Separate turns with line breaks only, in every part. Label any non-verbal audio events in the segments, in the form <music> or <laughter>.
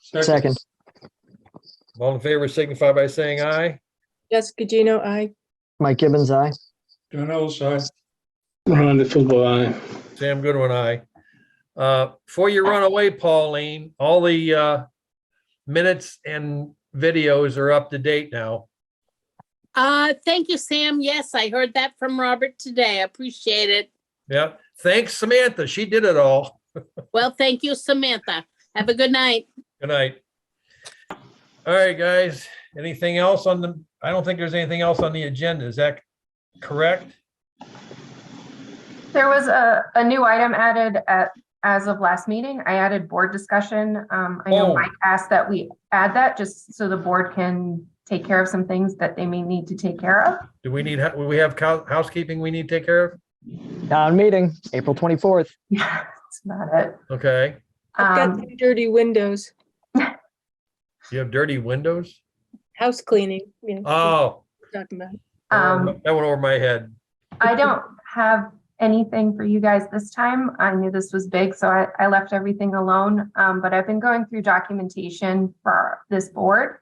Second,
All in favor signify by saying aye.
Jessica Gino, I.
Mike Gibbons, aye.
Donald's aye.
Ron DeFullio, aye.
Sam Goodwin, aye. Uh, Before you run away, Pauline, all the uh, minutes and videos are up to date now.
Uh, thank you, Sam. Yes, I heard that from Robert today. I appreciate it.
Yeah, thanks Samantha. She did it all.
Well, thank you, Samantha. Have a good night.
Good night. All right, guys. Anything else on the, I don't think there's anything else on the agenda. Is that correct?
There was a, a new item added at, as of last meeting. I added board discussion. Um, I
Oh.
know Mike asked that we add that just so the board can take care of some things that they may need to take care of. <laughs>
Do we need, will we have cou- housekeeping we need to take care of?
Town meeting, April 24th.
Yeah, that's about it.
Okay,
I've got
Um,
some dirty windows,
you have dirty windows?
house cleaning, you know. what
Oh,
we're Talking about.
that
um,
went over my head.
I don't have anything for you guys this time. I knew this was big, so I, I left everything alone. Um, but I've been going through documentation for this board.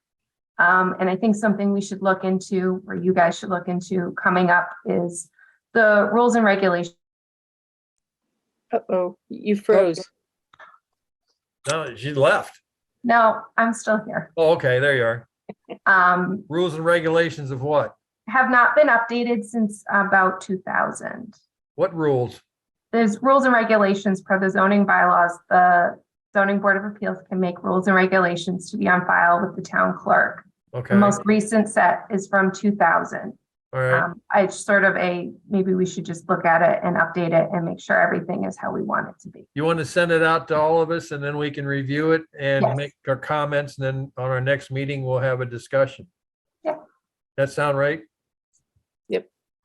Um, and I think something we should look into, or you guys should look into coming up is the rules and regulations.
Uh-oh, you froze.
No, she left.
No, I'm still here.
Oh, okay, there you are.
Um,
Rules and regulations of what?
have not been updated since about two thousand.
What rules?
There's rules and regulations per the zoning bylaws. The zoning board of appeals can make rules and regulations to be on file with the town clerk. The
Okay, all
most recent set is from two thousand.
right,
Um, I sort of a, maybe we should just look at it and update it and make sure everything is how we want it to be.
you want to send it out to all of us and then we can review it and
Yes.
make our comments and then on our next meeting, we'll have a discussion.
Yeah.
That sound right?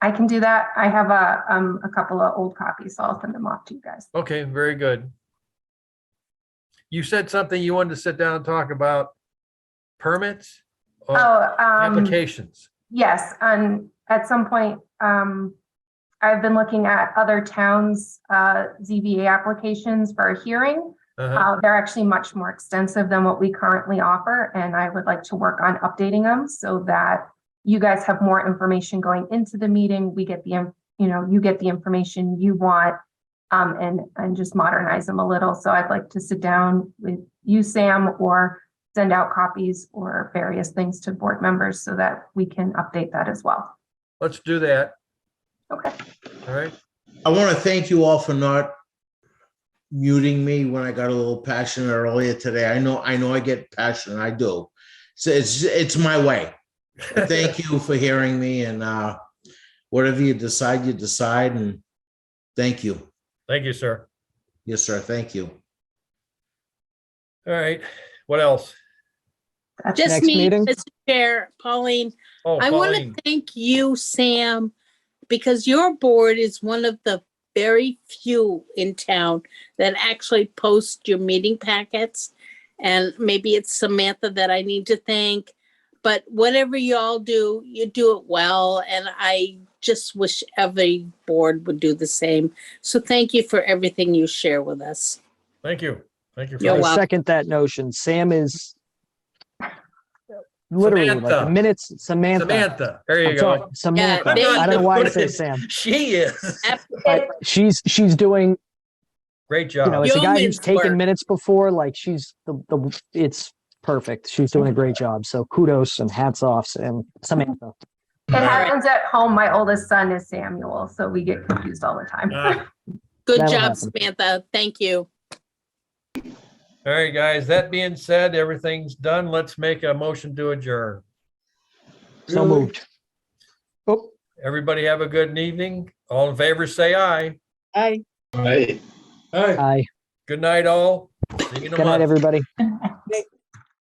I can do that. I have a, um, a couple of old copies, so I'll send them off to you guys.
Okay, very good. You said something you wanted to sit down and talk about permits or
Oh, um,
applications.
yes, and at some point, um, I've been looking at other towns' uh, ZBA applications for a hearing.
Uh-huh.
Uh, they're actually much more extensive than what we currently offer, and I would like to work on updating them so that you guys have more information going into the meeting. We get the, in- you know, you get the information you want. Um, and, and just modernize them a little. So I'd like to sit down with you, Sam, or send out copies or various things to board members so that we can update that as well.
Let's do that,
Okay.
all right?
I want to thank you all for not muting me when I got a little passionate earlier today. I know, I know I get passionate. I do. So it's, it's my way. Thank you for hearing me and, uh, whatever you decide, you decide and thank you.
<laughs> Thank you, sir.
Yes, sir. Thank you.
All right, what else?
That's-
Just
Next
me,
meeting?
Mr. Chair, Pauline.
Oh,
I want
Pauline.
to thank you, Sam, because your board is one of the very few in town that actually post your meeting packets. And maybe it's Samantha that I need to thank, but whatever y'all do, you do it well. And I just wish every board would do the same. So thank you for everything you share with us.
Thank you. Thank you. for
You're
that.
I
welcome.
second that notion. Sam is literally like
Samantha.
the minutes, Samantha.
Samantha, there
I'm
you
sorry,
go.
Samantha.
they-
I don't know why I say Sam.
She is. <laughs>
but She's, she's doing,
Great
you know,
job.
as a guy who's
Yeoman's work.
taken minutes before, like she's the, the, it's perfect. She's doing a great job. So kudos and hats offs and Samantha.
It happens at home. My oldest son is Samuel, so we get confused all the time.
Ah,
Good
That'll
job,
happen.
Samantha. Thank you.
All right, guys, that being said, everything's done. Let's make a motion to adjourn.
So
Really?
moved. Oh,
Everybody have a good evening. All in favor, say aye.
I.
Aye.
Aye.
aye.
Good night, all. See you in a
Good night,
month.
everybody.